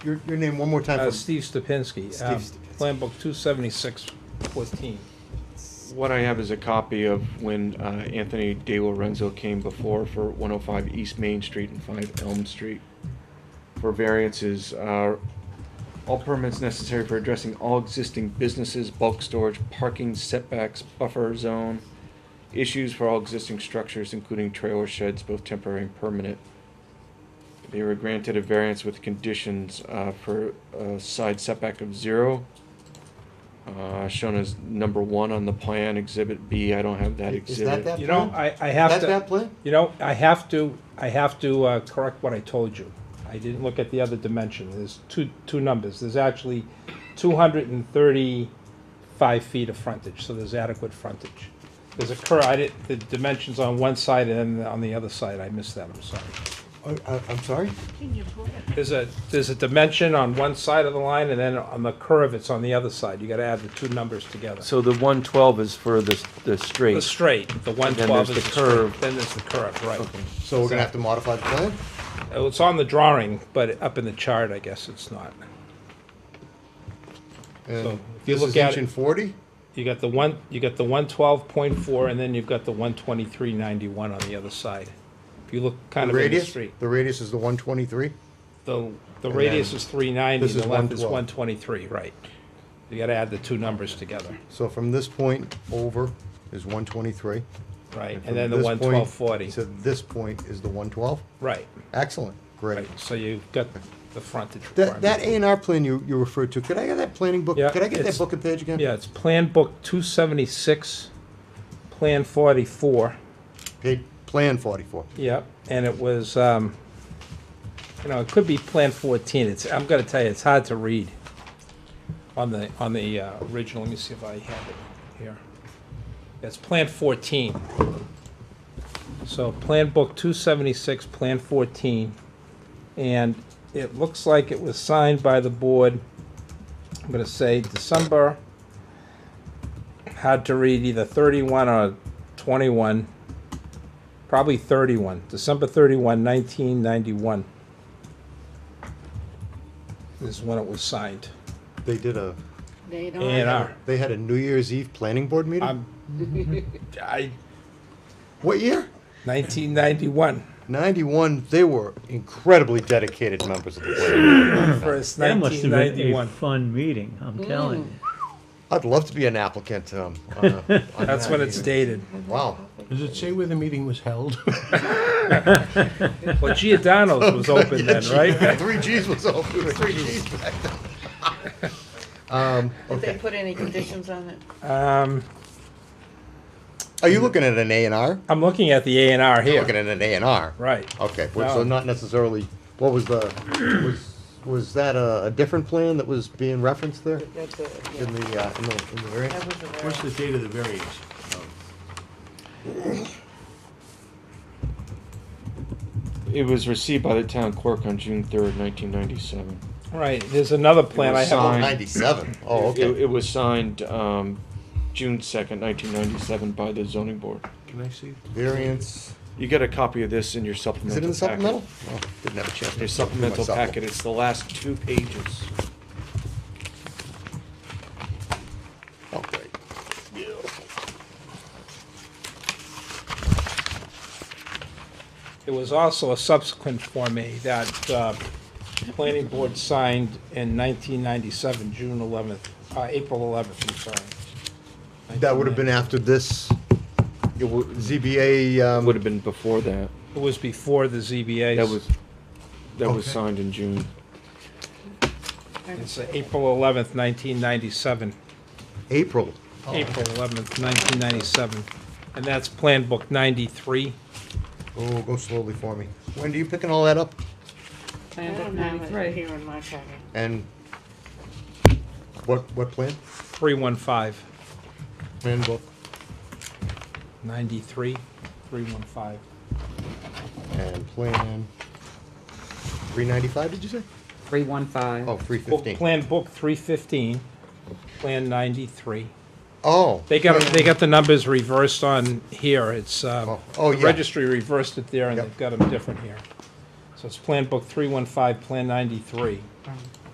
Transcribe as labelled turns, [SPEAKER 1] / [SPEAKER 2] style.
[SPEAKER 1] Your, your name one more time.
[SPEAKER 2] Uh,
[SPEAKER 1] for-
[SPEAKER 2] Steve Stupinski, uh,
[SPEAKER 1] Steve Stupinski.
[SPEAKER 2] Plan Book two seventy-six fourteen.
[SPEAKER 3] What I have is a copy of when uh, Anthony De Lorenzo came before for 105 East Main Street and 5 Elm Street for variances. uh, All permits necessary for addressing all existing businesses, bulk storage, parking setbacks, buffer zone, issues for all existing structures, including trailer sheds, both temporary and permanent. They were granted a variance with conditions uh, for a side setback of zero, uh, shown as number one on the plan, Exhibit B. I don't have that
[SPEAKER 1] Is that
[SPEAKER 3] exhibit.
[SPEAKER 1] that
[SPEAKER 2] You know,
[SPEAKER 1] plan?
[SPEAKER 2] I, I
[SPEAKER 1] That
[SPEAKER 2] have to,
[SPEAKER 1] that plan?
[SPEAKER 2] you know, I have to, I have to uh, correct what I told you. I didn't look at the other dimension. There's two, two numbers. There's actually two hundred and thirty-five feet of frontage, so there's adequate frontage. There's a cur, I did, the dimensions on one side and then on the other side, I missed that, I'm sorry.
[SPEAKER 1] Oh, I- I'm sorry?
[SPEAKER 2] There's a, there's a dimension on one side of the line, and then on the curve, it's on the other side. You gotta add the two numbers together.
[SPEAKER 4] So the one twelve is for the, the straight.
[SPEAKER 2] The straight, the one
[SPEAKER 4] then
[SPEAKER 2] twelve is
[SPEAKER 4] there's
[SPEAKER 2] the
[SPEAKER 4] the
[SPEAKER 2] curve.
[SPEAKER 4] curve.
[SPEAKER 2] Then there's the curve, right.
[SPEAKER 1] So we're gonna have to modify the plan?
[SPEAKER 2] Uh, It's on the drawing, but up in the chart, I guess it's not. So,
[SPEAKER 1] And
[SPEAKER 2] if you
[SPEAKER 1] this
[SPEAKER 2] look
[SPEAKER 1] is
[SPEAKER 2] at
[SPEAKER 1] inch
[SPEAKER 2] it-
[SPEAKER 1] and forty?
[SPEAKER 2] You got the one, you got the one twelve point four, and then you've got the one twenty-three ninety-one on the other side. If you look kind
[SPEAKER 1] The
[SPEAKER 2] of in the
[SPEAKER 1] radius?
[SPEAKER 2] street,
[SPEAKER 1] The radius is the one twenty-three?
[SPEAKER 2] the, the radius is three ninety,
[SPEAKER 1] this
[SPEAKER 2] the
[SPEAKER 1] is
[SPEAKER 2] length is
[SPEAKER 1] 112.
[SPEAKER 2] one twenty-three, right. You gotta add the two numbers together,
[SPEAKER 1] So from this point over is one twenty-three?
[SPEAKER 2] right, and then the one
[SPEAKER 1] one
[SPEAKER 2] twelve forty,
[SPEAKER 1] So this point is the one twelve?
[SPEAKER 2] right.
[SPEAKER 1] Excellent, great.
[SPEAKER 2] Right, so you've got the frontage
[SPEAKER 1] That,
[SPEAKER 2] requirement.
[SPEAKER 1] that A and R plan you, you referred to, could I get that planning book?
[SPEAKER 2] Yeah,
[SPEAKER 1] Could I get that
[SPEAKER 2] it's-
[SPEAKER 1] book and page again?
[SPEAKER 2] Yeah, it's Plan Book two seventy-six, Plan forty-four.
[SPEAKER 1] Pa- Plan forty-four.
[SPEAKER 2] Yep, and it was, um, you know, it could be Plan 14. It's, I'm gonna tell you, it's hard to read on the, on the uh, original. Let me see if I have it here. That's Plan 14. So Plan Book 276, Plan 14. And it looks like it was signed by the board, I'm gonna say December, hard to read, either 31 or 21 probably 31, December 31, 1991 is when it was signed.
[SPEAKER 1] They did a,
[SPEAKER 5] They don't.
[SPEAKER 2] A and R.
[SPEAKER 1] they had a New Year's Eve planning board meeting?
[SPEAKER 2] I'm, I,
[SPEAKER 1] What year?
[SPEAKER 2] 1991,
[SPEAKER 1] Ninety-one, they were incredibly dedicated members of the planning. board.
[SPEAKER 2] first
[SPEAKER 6] That must have been a
[SPEAKER 2] 1991.
[SPEAKER 6] fun meeting, I'm telling you.
[SPEAKER 1] I'd love to be an applicant, um, on a- on
[SPEAKER 2] That's
[SPEAKER 1] that
[SPEAKER 2] when it's
[SPEAKER 1] meeting.
[SPEAKER 2] dated.
[SPEAKER 1] Wow.
[SPEAKER 7] Does it say where the meeting was held?
[SPEAKER 2] Well, Giordano's was open then, right?
[SPEAKER 1] Three Gs was open, it was three Gs back then. Um,
[SPEAKER 5] Did they
[SPEAKER 1] okay,
[SPEAKER 5] put any conditions on it?
[SPEAKER 2] Um,
[SPEAKER 1] are you looking at an A and R?
[SPEAKER 2] I'm looking at the A and R
[SPEAKER 1] You're looking
[SPEAKER 2] here.
[SPEAKER 1] at an A and R.
[SPEAKER 2] Right.
[SPEAKER 1] Okay, well, so
[SPEAKER 2] No.
[SPEAKER 1] not necessarily, what was the, was, was that a, a different plan that was being referenced there
[SPEAKER 5] That's a, yeah,
[SPEAKER 1] in the, uh, in the, in the variance?
[SPEAKER 5] that was a variance.
[SPEAKER 7] What's the date of the variance?
[SPEAKER 3] It was received by the town clerk on June 3rd, 1997.
[SPEAKER 2] Right, there's another plan I
[SPEAKER 3] was
[SPEAKER 2] have.
[SPEAKER 3] signed.
[SPEAKER 1] Ninety-seven. Oh,
[SPEAKER 3] It,
[SPEAKER 1] okay.
[SPEAKER 3] it was signed um, June 2nd, 1997 by the zoning board.
[SPEAKER 7] Can I see?
[SPEAKER 1] Variance,
[SPEAKER 3] You get a copy of this in your
[SPEAKER 1] is
[SPEAKER 3] supplemental
[SPEAKER 1] it in the
[SPEAKER 3] packet.
[SPEAKER 1] supplemental? Oh, Didn't have a chance. to look
[SPEAKER 3] Your
[SPEAKER 1] through my
[SPEAKER 3] supplemental
[SPEAKER 1] supplement.
[SPEAKER 3] packet, it's the last two pages.
[SPEAKER 1] Oh, great.
[SPEAKER 2] There was also a subsequent Form A that uh, planning board signed in 1997, June 11th, uh, April 11th, I'm sorry.
[SPEAKER 1] That would have been after this, it wa- ZBA, um.
[SPEAKER 3] Would have been before that.
[SPEAKER 2] It was before the ZBA.
[SPEAKER 3] That was, that was
[SPEAKER 1] Okay.
[SPEAKER 3] signed in June.
[SPEAKER 2] It's uh, April 11th, 1997.
[SPEAKER 1] April.
[SPEAKER 2] April 11th, 1997. And that's Plan Book 93.
[SPEAKER 1] Oh, go slowly for me. When do you picking all that up?
[SPEAKER 5] I don't have it here in my packet.
[SPEAKER 1] And what, what plan?
[SPEAKER 2] 315.
[SPEAKER 1] Plan book.
[SPEAKER 2] 93, 315.
[SPEAKER 1] And plan, three ninety-five, did you say?
[SPEAKER 8] Three one five.
[SPEAKER 1] Oh, three
[SPEAKER 2] Book,
[SPEAKER 1] fifteen.
[SPEAKER 2] Plan Book 315, Plan 93.
[SPEAKER 1] Oh.
[SPEAKER 2] They got, they got the numbers reversed on here, it's, uh,
[SPEAKER 1] Oh, oh,
[SPEAKER 2] the
[SPEAKER 1] yeah.
[SPEAKER 2] registry reversed it there, and
[SPEAKER 1] Yep.
[SPEAKER 2] they've got them different here. So it's Plan Book 315, Plan 93.